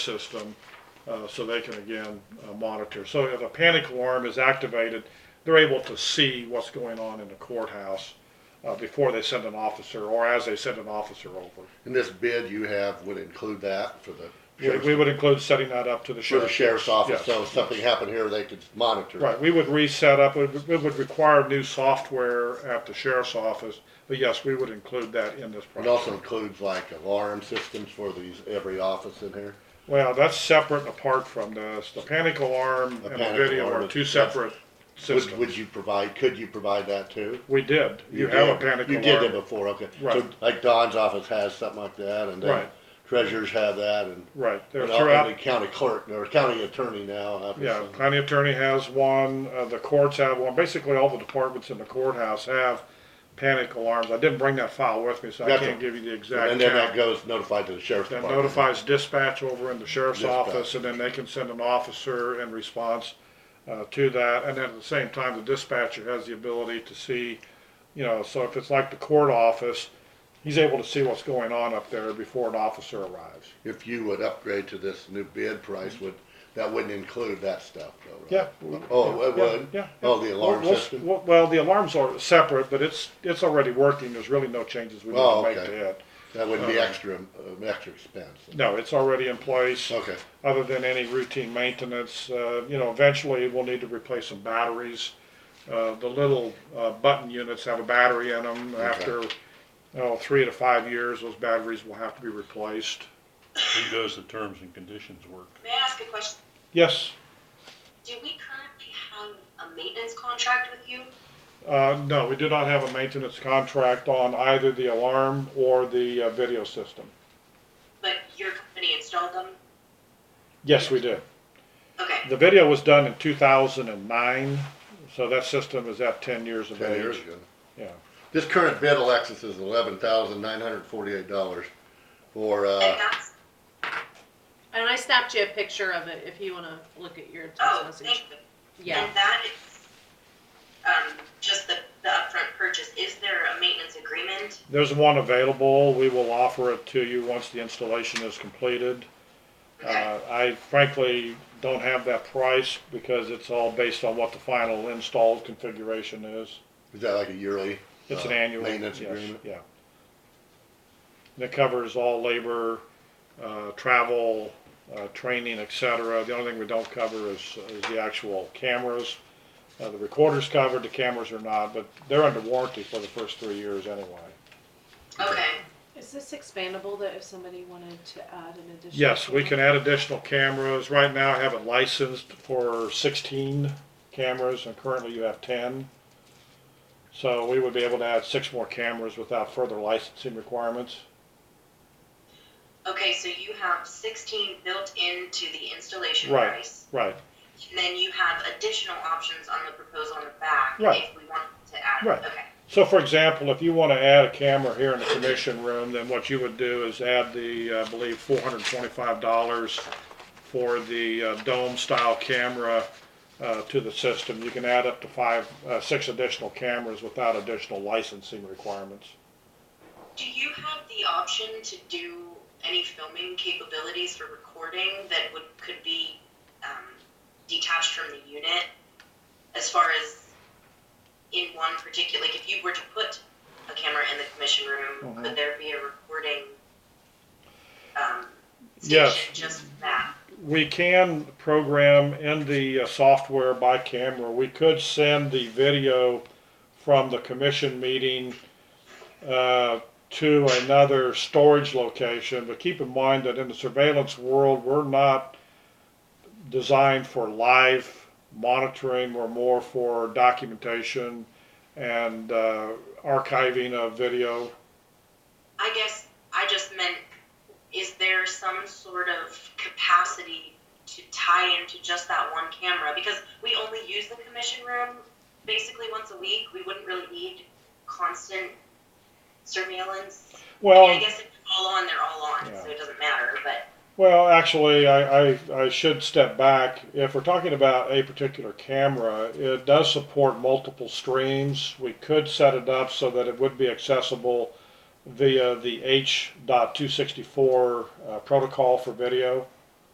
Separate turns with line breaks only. system uh, so they can again uh, monitor. So if a panic alarm is activated, they're able to see what's going on in the courthouse uh, before they send an officer or as they send an officer over.
And this bid you have would include that for the
We,
sheriff's,
we would include setting that up to the
for the
sheriff's.
sheriff's office,
Yes.
so if something happened here, they could monitor. it.
Right, we would reset up, it would- it would require new software at the sheriff's office, but yes, we would include that in this
It
project.
also includes like alarm systems for these, every office in here.
Well, that's separate and apart from this. The panic alarm and the
panic
video
alarm
are
is-
two separate
Would,
systems.
would you provide, could you provide that too?
We did, you have a
did.
panic
You
alarm.
did it before, okay. So
Right.
like Don's office has something like that and then
Right.
treasurers have that and.
Right, they're
and the
throughout,
county clerk, or county attorney now.
yeah,
obviously.
county attorney has one, uh, the courts have one, basically all the departments in the courthouse have panic alarms. I didn't bring that file with me, so I
Gotcha.
can't give you the exact
And then that
count.
goes notified to the sheriff's
That
department.
notifies dispatch over in the sheriff's
Dispatch.
office, and then they can send an officer in response, uh, to that. And then at the same time, the dispatcher has the ability to see, you know, so if it's like the court office, he's able to see what's going on up there before an officer arrives.
If you would upgrade to this new bid price, would, that wouldn't include that stuff though, right?
Yeah.
Oh, it
Yeah,
would?
Yeah.
Oh, the alarm
Well, we'll-
system?
Well, well, the alarms are separate, but it's, it's already working. There's really no changes we need
Oh,
to make
okay.
to it.
That would be
Uh,
extra, an extra expense.
No, it's already in place.
Okay,
Other than any routine maintenance, uh, you know, eventually we'll need to replace some batteries. Uh, the little, uh, button units have a battery in them. After, oh, three to five years, those batteries will have to be replaced.
Who does the terms and conditions work?
May I ask a question?
Yes,
Do we currently have a maintenance contract with you?
uh, no, we do not have a maintenance contract on either the alarm or the, uh, video system.
But your company installed them?
Yes, we did.
Okay,
The video was done in 2009, so that system is at 10 years of
ten
age.
years ago.
Yeah.
This current bid, Alexis, is eleven thousand nine hundred forty-eight dollars for,
and
uh,
that's,
And I snapped you a picture of it if you want to look at your text
oh,
message.
thank you.
Yeah.
And that is, um, just the, the upfront purchase, is there a maintenance agreement?
There's one available. We will offer it to you once the installation is completed.
Okay,
Uh, I frankly don't have that price because it's all based on what the final installed configuration is.
is that like a yearly?
It's
uh,
an annual.
Maintenance
yes,
agreement?
Yeah. And it covers all labor, uh, travel, uh, training, et cetera. The only thing we don't cover is, is the actual cameras. Uh, the recorder's covered, the cameras are not, but they're under warranty for the first three years anyway.
okay,
Is this expandable that if somebody wanted to add an additional?
Yes, we can add additional cameras. Right now, I have it licensed for sixteen cameras, and currently you have ten. So we would be able to add six more cameras without further licensing requirements.
okay, so you have sixteen built into the installation
Right.
price?
Right,
And then you have additional options on the proposal on the back?
Right.
If we want to add,
Right.
okay,
So for example, if you want to add a camera here in the commission room, then what you would do is add the, uh, I believe, four hundred and twenty-five dollars for the uh, dome-style camera uh, to the system. You can add up to five, uh, six additional cameras without additional licensing requirements.
Do you have the option to do any filming capabilities for recording that would, could be, um, detached from the unit? As far as in one particular, like if you were to put a camera in the commission room,
Mhm.
could there be a recording, um,
Yes.
station just for that?
We can program in the uh, software by camera. We could send the video from the commission meeting uh, to another storage location, but keep in mind that in the surveillance world, we're not designed for live monitoring. We're more for documentation and uh, archiving of video.
I guess I just meant, is there some sort of capacity to tie into just that one camera? Because we only use the commission room basically once a week. We wouldn't really need constant surveillance. I, mean, I
Well,
guess if they're all on, they're all on, so it doesn't matter. But
Well, actually, I, I, I should step back. If we're talking about a particular camera, it does support multiple streams. We could set it up so that it would be accessible via the H.264 uh, protocol for video.